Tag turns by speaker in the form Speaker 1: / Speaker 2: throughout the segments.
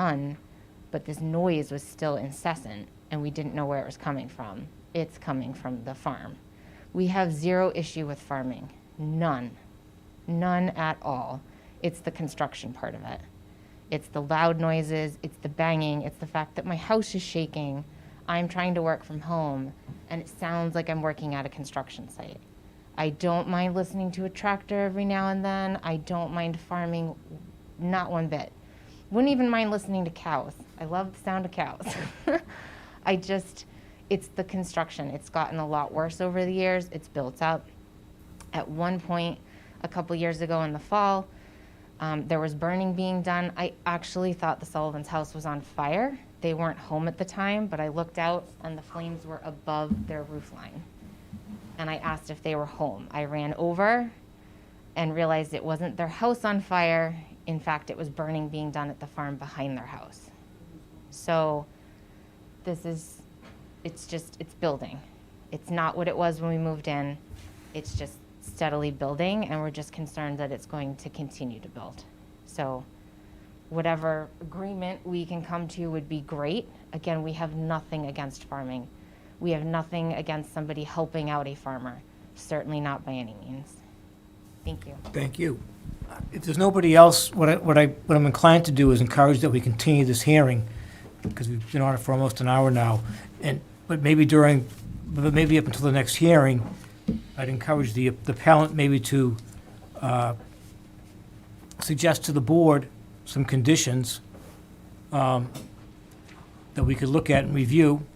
Speaker 1: done, but this noise was still incessant and we didn't know where it was coming from. It's coming from the farm. We have zero issue with farming, none, none at all. It's the construction part of it. It's the loud noises, it's the banging, it's the fact that my house is shaking. I'm trying to work from home and it sounds like I'm working at a construction site. I don't mind listening to a tractor every now and then. I don't mind farming, not one bit. Wouldn't even mind listening to cows. I love the sound of cows. I just, it's the construction. It's gotten a lot worse over the years. It's built up. At one point, a couple years ago in the fall, um, there was burning being done. I actually thought the Sullivan's house was on fire. They weren't home at the time, but I looked out and the flames were above their roof line and I asked if they were home. I ran over and realized it wasn't their house on fire. In fact, it was burning being done at the farm behind their house. So this is, it's just, it's building. It's not what it was when we moved in. It's just steadily building, and we're just concerned that it's going to continue to build. So whatever agreement we can come to would be great. Again, we have nothing against farming. We have nothing against somebody helping out a farmer, certainly not by any means. Thank you.
Speaker 2: Thank you. If there's nobody else, what I, what I, what I'm inclined to do is encourage that we continue this hearing, because we've been on it for almost an hour now, and, but maybe during, but maybe up until the next hearing, I'd encourage the, the appellant maybe to, uh, suggest to the board some conditions, um, that we could look at and review,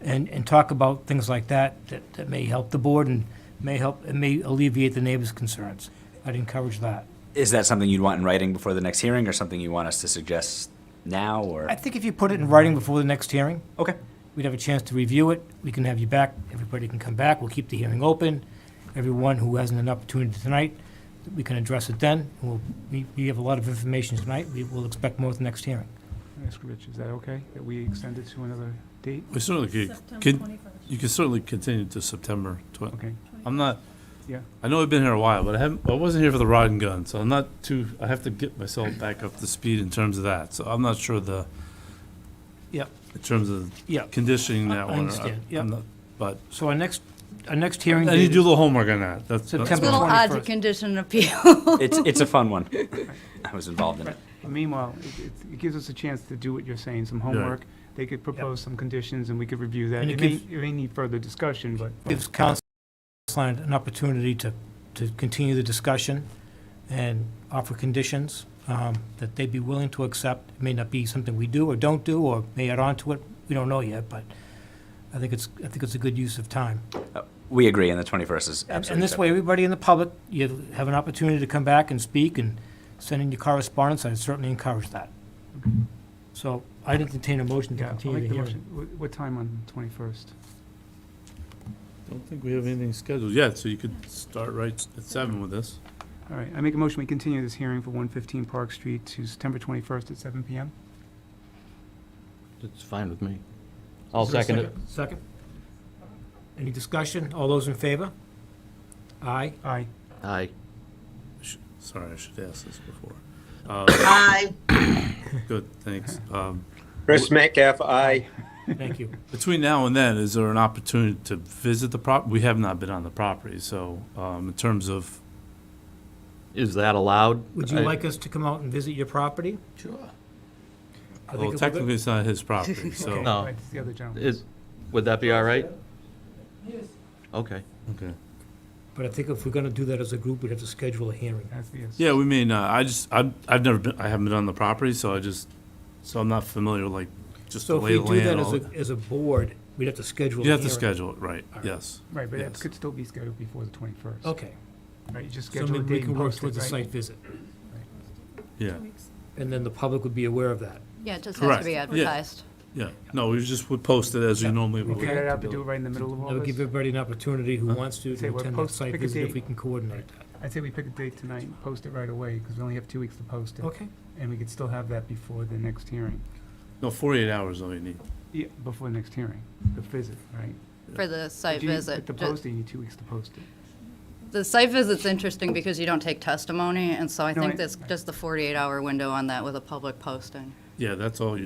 Speaker 2: and, and talk about things like that, that, that may help the board and may help, and may alleviate the neighbors' concerns. I'd encourage that.
Speaker 3: Is that something you'd want in writing before the next hearing, or something you want us to suggest now, or?
Speaker 2: I think if you put it in writing before the next hearing,
Speaker 3: Okay,
Speaker 2: we'd have a chance to review it. We can have you back. Everybody can come back. We'll keep the hearing open. Everyone who hasn't an opportunity tonight, we can address it then. And We'll, we, we have a lot of information tonight. We will expect more at the next hearing.
Speaker 4: Ask Rich, is that okay, that we extend it to another date?
Speaker 5: We certainly could, could, you could certainly continue to September twen-
Speaker 4: Okay,
Speaker 5: I'm not,
Speaker 4: yeah,
Speaker 5: I know I've been here a while, but I haven't, I wasn't here for the rod and gun, so I'm not too, I have to get myself back up to speed in terms of that, so I'm not sure the,
Speaker 2: Yep.
Speaker 5: in terms of
Speaker 2: Yep.
Speaker 5: conditioning
Speaker 2: I
Speaker 5: that one. or-
Speaker 2: understand,
Speaker 5: I'm
Speaker 2: yep.
Speaker 5: not- But,
Speaker 2: So our next, our next hearing
Speaker 5: I need
Speaker 2: date
Speaker 5: to do
Speaker 2: is
Speaker 5: the homework on that, that's. that's-
Speaker 2: September
Speaker 6: Little odds of
Speaker 2: 21st.
Speaker 6: condition appeal.
Speaker 3: it's, it's a fun one. I was involved in it.
Speaker 4: meanwhile, it, it- it gives us a chance to do what you're saying, some homework. They could propose some conditions and we could review that.
Speaker 2: And
Speaker 4: It
Speaker 2: it
Speaker 4: may,
Speaker 2: gives-
Speaker 4: it may need further discussion, but.
Speaker 2: Gives council an opportunity to, to continue the discussion and offer conditions um, that they'd be willing to accept. It may not be something we do or don't do, or may add on to it. We don't know yet, but I think it's, I think it's a good use of time.
Speaker 3: Uh, We agree, and the 21st is
Speaker 2: And-
Speaker 3: absolutely.
Speaker 2: And this way, everybody in the public, you have an opportunity to come back and speak and send in your correspondence, I'd certainly encourage that. So I would entertain a motion to
Speaker 4: Yeah, I'll
Speaker 2: continue
Speaker 4: make
Speaker 2: the
Speaker 4: the
Speaker 2: hearing.
Speaker 4: motion. Wh- What time on the 21st?
Speaker 5: Don't think we have anything scheduled yet, so you could start right at seven with this.
Speaker 4: All right, I make a motion, we continue this hearing for 115 Park Street to September 21st at 7 PM.
Speaker 7: It's fine with me. I'll
Speaker 2: Is there a
Speaker 7: second it.
Speaker 2: Second? Any discussion? All those in favor? Aye.
Speaker 4: Aye.
Speaker 7: Aye.
Speaker 5: Sh- Sorry, I should ask this before. Aye. Good, thanks. Um,
Speaker 8: Chris Metcalf, aye.
Speaker 2: Thank you.
Speaker 5: Between now and then, is there an opportunity to visit the prop, we have not been on the property, so, um, in terms of,
Speaker 7: Is that allowed?
Speaker 2: Would you
Speaker 7: I-
Speaker 2: like us to come out and visit your property?
Speaker 7: Sure.
Speaker 2: I think
Speaker 5: well,
Speaker 2: it would-
Speaker 5: technically it's not his property, so.
Speaker 2: Oh.
Speaker 7: No.
Speaker 4: Right, It's the other gentleman.
Speaker 7: Is, would that be all right? Yes. Okay.
Speaker 5: Okay.
Speaker 2: But I think if we're gonna do that as a group, we'd have to schedule a hearing.
Speaker 4: That's the, yes.
Speaker 5: Yeah, we may not, I just, I've, I've never been, I haven't been on the property, so I just, so I'm not familiar, with, like, just the
Speaker 2: So if
Speaker 5: lay
Speaker 2: we
Speaker 5: of the
Speaker 2: do that
Speaker 5: land.
Speaker 2: as
Speaker 5: all-
Speaker 2: a, as a board, we'd have to schedule a
Speaker 5: You
Speaker 2: hearing.
Speaker 5: have to schedule it, right, yes.
Speaker 4: Right, but it
Speaker 5: Yes.
Speaker 4: could still be scheduled before the 21st.
Speaker 2: Okay,
Speaker 4: Right, you just
Speaker 2: so
Speaker 4: schedule a
Speaker 2: maybe we
Speaker 4: date
Speaker 2: can
Speaker 4: and
Speaker 2: work
Speaker 4: post
Speaker 2: towards a
Speaker 4: it, right?
Speaker 2: site visit,
Speaker 5: Yeah,
Speaker 2: and then the public would be aware of that.
Speaker 6: Yeah, it just has
Speaker 5: Correct.
Speaker 6: to be
Speaker 5: Yeah.
Speaker 6: advertised.
Speaker 5: yeah, no, we just would post it as you normally
Speaker 4: We
Speaker 5: would.
Speaker 4: figured it out to do it right in the middle of all
Speaker 2: That would give
Speaker 4: this.
Speaker 2: everybody an opportunity who wants to
Speaker 4: Say
Speaker 2: to
Speaker 4: what,
Speaker 2: attend that
Speaker 4: post-
Speaker 2: site
Speaker 4: pick a
Speaker 2: visit if
Speaker 4: date.
Speaker 2: we can coordinate that.
Speaker 4: I'd say we pick a date tonight and post it right away, because we only have two weeks to post it.
Speaker 2: Okay.
Speaker 4: And we could still have that before the next hearing.
Speaker 5: No, forty-eight hours is all you need.
Speaker 4: Yeah, before the next hearing, the visit, right?
Speaker 6: For the site
Speaker 4: But you-
Speaker 6: visit.
Speaker 4: But the
Speaker 6: Ju-
Speaker 4: posting, you two weeks to post it.
Speaker 6: The site visit's interesting because you don't take testimony, and so I
Speaker 4: No, I-
Speaker 6: think that's just the 48-hour window on that with a public posting.
Speaker 5: Yeah, that's all you